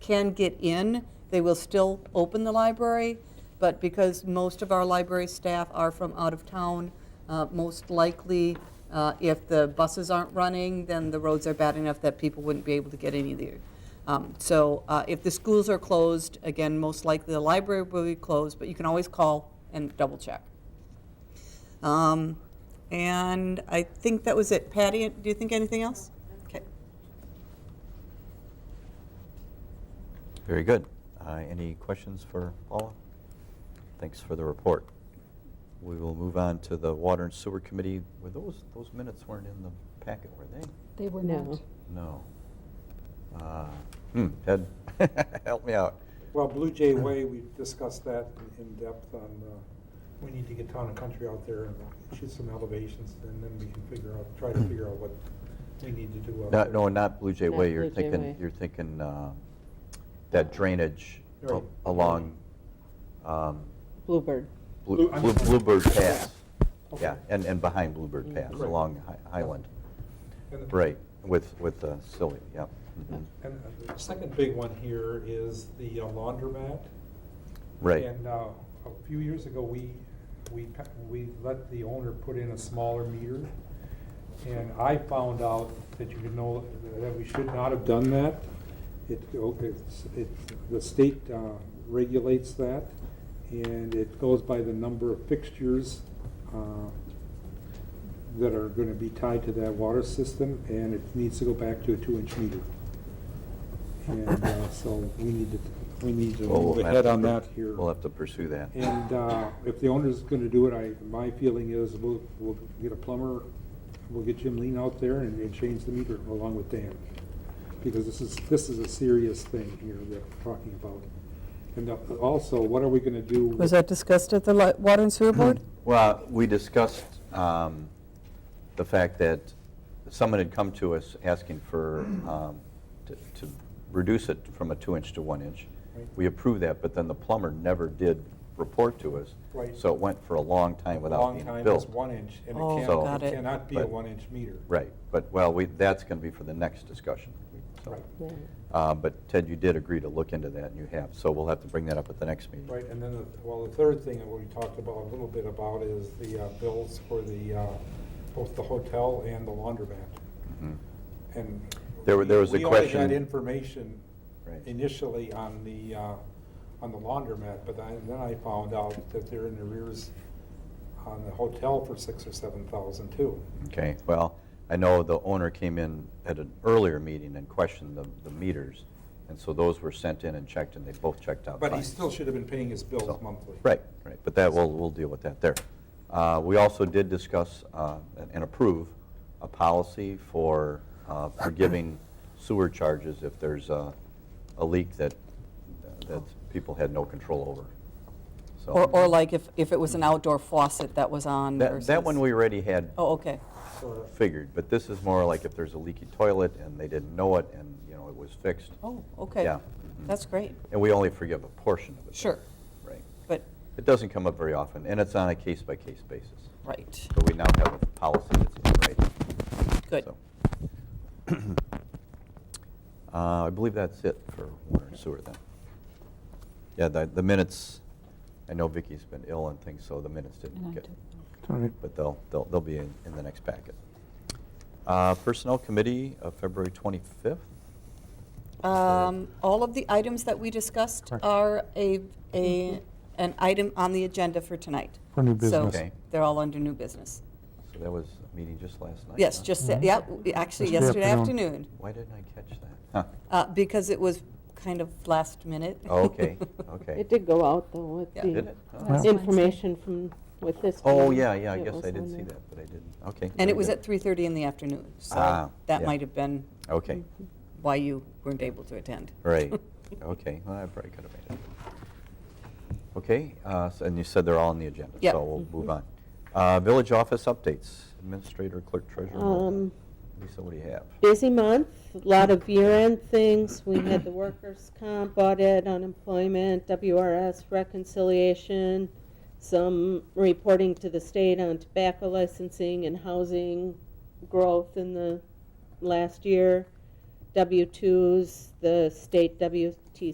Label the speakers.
Speaker 1: can get in, they will still open the library, but because most of our library staff are from out of town, uh, most likely, uh, if the buses aren't running, then the roads are bad enough that people wouldn't be able to get in either. Um, So uh, if the schools are closed, again, most likely the library will be closed, but you can always call and double-check. Um, And I think that was it. Patty, do you think anything else? Okay.
Speaker 2: Very good. Uh, Any questions for Paula? Thanks for the report. We will move on to the Water and Sewer Committee. Were those, those minutes weren't in the packet, were they?
Speaker 3: They were
Speaker 4: No.
Speaker 3: not.
Speaker 2: No. Uh, Hmm, Ted, help me out.
Speaker 5: Well, Blue Jay Way, we discussed that in- in depth on, uh, we need to get town and country out there and shoot some elevations, and then we can figure out, try to figure out what we need to do. out
Speaker 2: No,
Speaker 5: there.
Speaker 2: no, not Blue Jay
Speaker 4: Not
Speaker 2: Way. You're
Speaker 4: Blue Jay
Speaker 2: thinking,
Speaker 4: Way.
Speaker 2: you're thinking uh, that drainage a-
Speaker 5: Right.
Speaker 2: along um,
Speaker 4: Bluebird.
Speaker 2: Blue-
Speaker 5: Blue- I'm
Speaker 2: Blue-
Speaker 5: sorry.
Speaker 2: Bluebird Pass.
Speaker 5: Okay.
Speaker 2: Yeah, and, and behind Bluebird
Speaker 4: Mm.
Speaker 2: Pass,
Speaker 5: Right.
Speaker 2: along Hi- Highland.
Speaker 5: And-
Speaker 2: Right, with, with uh, Silly, yep. mhm.
Speaker 5: And uh, the second big one here is the uh, laundromat.
Speaker 2: Right.
Speaker 5: And uh, a few years ago, we, we, pa- we let the owner put in a smaller meter. And I found out that you could know, that we should not have done that. It, go- it's, it, the state uh, regulates that, and it goes by the number of fixtures uh, that are gonna be tied to that water system, and it needs to go back to a two-inch meter. And uh, so we need to, we need to
Speaker 2: Well,
Speaker 5: move
Speaker 2: we'll have
Speaker 5: ahead
Speaker 2: to
Speaker 5: on
Speaker 2: pur-
Speaker 5: that here.
Speaker 2: We'll have to pursue that.
Speaker 5: And uh, if the owner's gonna do it, I, my feeling is we'll, we'll get a plumber, we'll get Jim Lean out there and, and change the meter along with Dan. Because this is, this is a serious thing here that we're talking about. And uh, also, what are we gonna do? with-
Speaker 3: Was that discussed at the li- Water and Sewer Board?
Speaker 2: Well, we discussed um, the fact that someone had come to us asking for, um, to to reduce it from a two-inch to one-inch.
Speaker 5: Right.
Speaker 2: We approved that, but then the plumber never did report to us.
Speaker 5: Right.
Speaker 2: So it went for a long time without being
Speaker 5: Long time
Speaker 2: built.
Speaker 5: is one inch, and
Speaker 3: Oh,
Speaker 5: it
Speaker 2: So-
Speaker 5: can't,
Speaker 2: got
Speaker 5: it
Speaker 3: it.
Speaker 5: cannot be a
Speaker 2: But-
Speaker 5: one-inch meter.
Speaker 2: Right, but, well, we, that's going to be for the next discussion. So,
Speaker 5: Right,
Speaker 4: Yeah.
Speaker 2: uh, But Ted, you did agree to look into that, and you have, so we'll have to bring that up at the next meeting.
Speaker 5: right, and then, the- well, the third thing that we talked about, a little bit about, is the uh, bills for the, uh, both the hotel and the laundromat.
Speaker 2: Mhm.
Speaker 5: And.
Speaker 2: There were- there was a question-
Speaker 5: We only had information
Speaker 2: Right.
Speaker 5: initially on the, uh, on the laundromat, but I- then I found out that they're in arrears on the hotel for six or seven thousand too.
Speaker 2: Okay, well, I know the owner came in at an earlier meeting and questioned the, the meters, and so those were sent in and checked, and they both checked out fine.
Speaker 5: But he still should have been paying his
Speaker 2: So-
Speaker 5: bills monthly.
Speaker 2: Right, right, but that, we'll, we'll deal with that there. Uh, We also did discuss uh, and approve a policy for uh, forgiving sewer charges if there's a, a leak that, that people had no control over, so.
Speaker 1: Or, or like if, if it was an outdoor faucet that was on
Speaker 2: That,
Speaker 1: versus...
Speaker 2: that one we already had
Speaker 1: Oh, okay.
Speaker 5: So,
Speaker 2: figured, but this is more like if there's a leaky toilet and they didn't know it and, you know, it was fixed.
Speaker 1: Oh, okay.
Speaker 2: Yeah.
Speaker 1: That's great.
Speaker 2: And we only forgive a portion of it.
Speaker 1: Sure.
Speaker 2: Right.
Speaker 1: But,
Speaker 2: It doesn't come up very often, and it's on a case-by-case basis.
Speaker 1: right,
Speaker 2: So we now have a policy that's in writing.
Speaker 1: good.
Speaker 2: So. Uh, I believe that's it for water and sewer then. Yeah, the, the minutes, I know Vicki's been ill and things, so the minutes didn't get. But they'll, they'll, they'll be in, in the next packet. Uh, Personnel Committee of February 25th.
Speaker 1: Um, All of the items that we discussed are a, a, an item on the agenda for tonight.
Speaker 6: For new
Speaker 1: So
Speaker 2: Okay.
Speaker 6: business.
Speaker 1: they're all under new business.
Speaker 2: So that was a meeting just last night.
Speaker 1: Yes,
Speaker 2: huh?
Speaker 1: just, that-
Speaker 6: Mhm.
Speaker 1: yeah, w- actually
Speaker 6: Yesterday
Speaker 1: yesterday
Speaker 6: afternoon.
Speaker 1: afternoon,
Speaker 2: Why didn't I catch that? Huh.
Speaker 1: uh, because it was kind of last minute.
Speaker 2: Oh, Okay, okay.
Speaker 4: It did go out, though, with
Speaker 1: Yeah.
Speaker 2: Did
Speaker 4: the
Speaker 2: it? Huh.
Speaker 6: Well-
Speaker 4: information from, with this.
Speaker 2: Oh,
Speaker 4: committee.
Speaker 2: yeah, yeah, I
Speaker 4: It
Speaker 2: guess
Speaker 4: was
Speaker 2: I
Speaker 4: on
Speaker 2: did see
Speaker 4: there.
Speaker 2: that, but I didn't. Okay.
Speaker 1: And
Speaker 2: very
Speaker 1: it was
Speaker 2: good.
Speaker 1: at 3:30 in the afternoon,
Speaker 2: Ah,
Speaker 1: so that
Speaker 2: yeah.
Speaker 1: might have been
Speaker 2: Okay,
Speaker 4: Mhm.
Speaker 1: why you weren't able to attend.
Speaker 2: right. Okay, well, I probably could have made it. Okay, uh, so- and you said they're all on the agenda,
Speaker 1: Yep.
Speaker 2: so we'll move on. Uh, Village office updates, administrator, clerk, treasurer.
Speaker 4: Um,
Speaker 2: Lisa, what do you have?
Speaker 4: Busy month, a lot of year-end things. We had the workers' comp audit, unemployment, WRS reconciliation, some reporting to the state on tobacco licensing and housing growth in the last year. W-2s, the state W